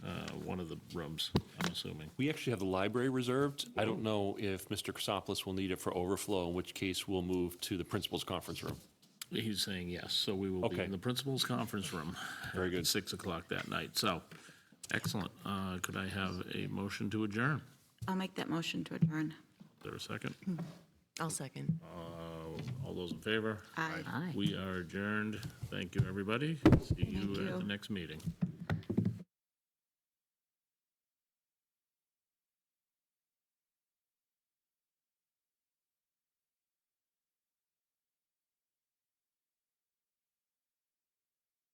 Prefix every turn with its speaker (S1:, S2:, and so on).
S1: uh, one of the rooms, I'm assuming.
S2: We actually have the library reserved. I don't know if Mr. Chrysopoulos will need it for overflow, in which case we'll move to the principal's conference room.
S1: He's saying yes, so we will be
S2: Okay.
S1: in the principal's conference room.
S2: Very good.
S1: At 6 o'clock that night, so, excellent. Uh, Could I have a motion to adjourn?
S3: I'll make that motion to adjourn.
S1: Is there a second?
S4: I'll second.
S1: Uh, All those in favor?
S3: Aye.
S1: We are adjourned. Thank you, everybody. See you
S3: Thank
S1: at the
S3: you.
S1: next meeting.